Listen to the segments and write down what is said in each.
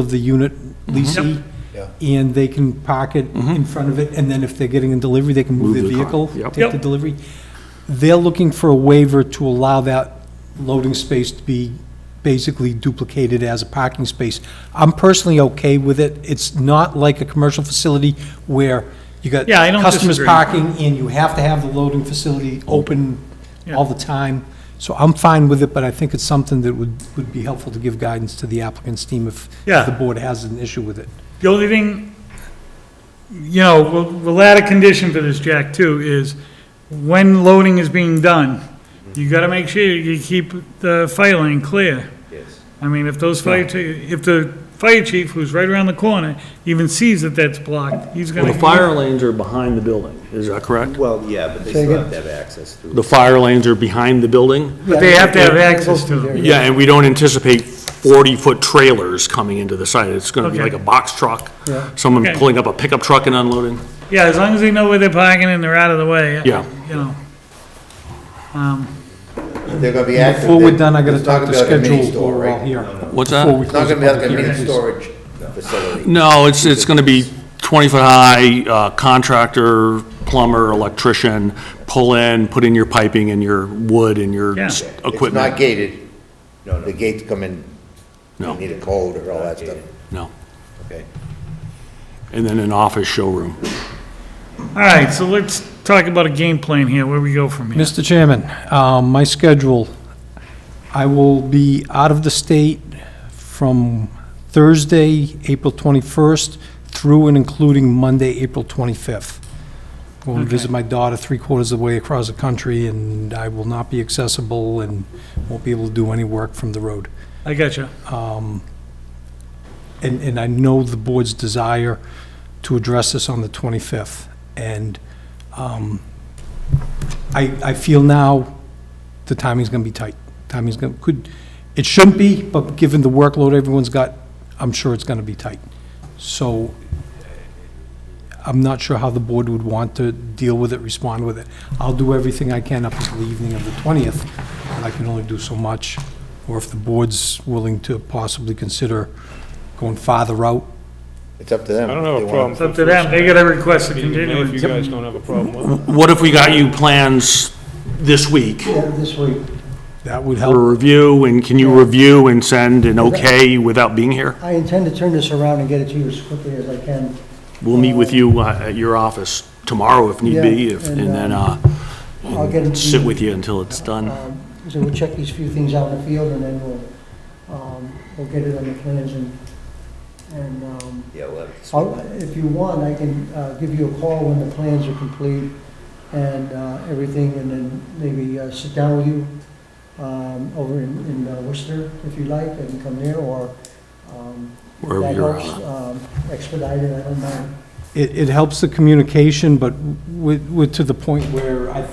of the unit Mm-hmm. leasee, and they can park it in front of it, and then if they're getting a delivery, they can move their Move the car, vehicle, yep. take the Yep. delivery. They're looking for a waiver to allow that loading space to be basically duplicated as a parking space. I'm personally okay with it. It's not like a commercial facility where you got Yeah, I don't customers disagree. parking, and you have to have the loading facility open all the time. So I'm fine with it, but I think it's something that would, would be helpful to give guidance to the applicant's team if Yeah. if the board has an issue with it. The only thing, you know, we'll we'll add a condition for this, Jack, too, is when loading is being done, you gotta make sure you keep the fire lane clear. Yes. I mean, if those fire, chi- if the fire chief, who's right around the corner, even sees that that's blocked, he's Well, gonna. the fire lanes are behind the building, is that correct? Well, yeah, but they still have to have access through. The fire lanes are behind the building? But they have to have access to them. Yeah, and we don't anticipate 40-foot trailers coming into the site. It's going to be Okay. like a box truck, Yeah. someone Okay. pulling up a pickup truck and unloading. Yeah, as long as they know where they're parking and they're out of the way. uh, Yeah. You know. They're gonna be active. Before we're then done, I gotta it's talk not to gonna be like a mini schedule, store, or we're all right? here. No, no. What's that? Before we It's not close gonna the be like a public mini hearing. storage facility. No, it's, it's going to be 20-foot-high uh, contractor, plumber, electrician, pull in, put in your piping and your wood and your Yeah. s- It's not equipment. gated. No, The gates come in, you No. need a code or all that stuff. No, Okay. and then an office showroom. All right, so let's talk about a game plan here, where we go from here. Mr. Chairman, um, my schedule, I will be out of the state from Thursday, April 21st, through and including Monday, April 25th. Going to visit my daughter three quarters of the way across the country, and I will not be accessible and won't be able to do any work from the road. I got you. And, and I know the board's desire to address this on the 25th. And um, I, I feel now the timing's going to be tight. Timing's going, to could, it shouldn't be, but given the workload everyone's got, I'm sure it's going to be tight. So I'm not sure how the board would want to deal with it, respond with it. I'll do everything I can up until the evening of the 20th, but I can only do so much. Or if the board's willing to possibly consider going farther out, It's up to them. I don't if have they a wanna- problem. It's up to them, they gotta request a If you continuance. guys don't have a problem with it. What if we got you plans this week? that would for help. review, and can you review and send an okay without being here? I intend to turn this around and get it to you as quickly as I can. We'll meet with you uh, at your office tomorrow if need be, Yeah, if- and, um, and then uh, I'll get it to sit you. with you until it's done. Um, So we'll check these few things out in the field, and then we'll, um, we'll get it on the plans, and, and um, Yeah, we'll have it. I'll- if you want, I can uh, give you a call when the plans are complete and uh, everything, and then maybe uh, sit down with you um, over in in uh, Worcester, if you like, I can come there, or um, if Wherever that you're, helps, uh, um, expedite it, I don't mind. It, it helps the communication, but we're, we're to the point where I,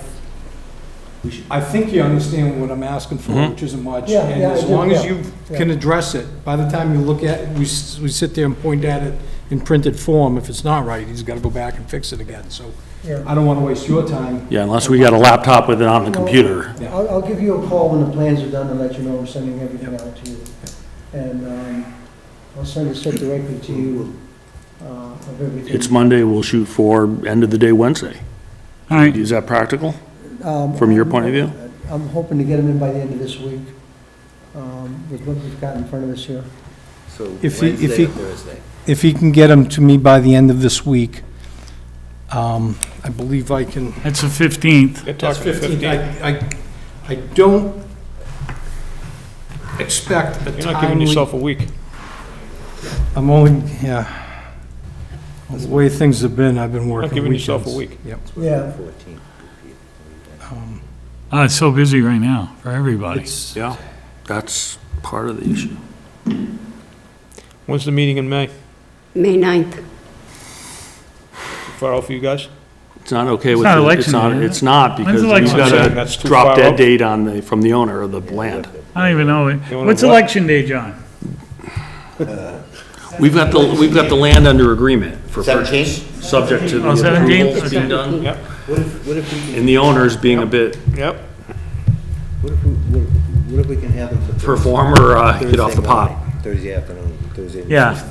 I think you understand what I'm asking for, Mhm. which isn't much. Yeah, And yeah, I as do, long as yeah, you yeah. can address it, by the time you look at, we, s- we sit there and point at it in printed form, if it's not right, he's gotta go back and fix it again, so Yeah. I don't wanna waste your time. Yeah, unless we got a laptop with it on the computer. Yeah. I'll, I'll give you a call when the plans are done and let you know I'm sending everything out to you. And, um, I'll send it set directly to you, uh, of everything. It's Monday, we'll shoot for end of the day Wednesday. All right, Is that practical? Um, from your point of view? I'm hoping to get them in by the end of this week, um, with what we've got in front of us here. So If he- if Wednesday he- or Thursday? If he can get them to me by the end of this week, um, I believe I can. that's the 15th. They're talking 15. I, I, I don't expect a You're not giving timely. yourself a week. I'm only, yeah. The way things have been, I've been working giving weekends. yourself a week. Yep. Yeah. Fourteen. Ah, it's so busy right now for everybody. It's, Yeah, that's part of the issue. When's the meeting in May? May 9th. Far out for you guys? It's not okay It's with, not the- election it's not, day, is it? it's not, because When's we've election got day? I'm saying that's a too drop far dead out. date on the, from the owner of the land. I don't even know it. wanna What's what? election day, John? We've got the, we've got the land under agreement for Seventeen? purchase, subject to the Oh, 17? approvals being done. Yep. What if, what if we, And the owners being a bit Yep. what if, we- what what if we can have them for Thursday? performer, uh, get off the Thursday pot. morning, Thursday afternoon. Thursday. Yeah.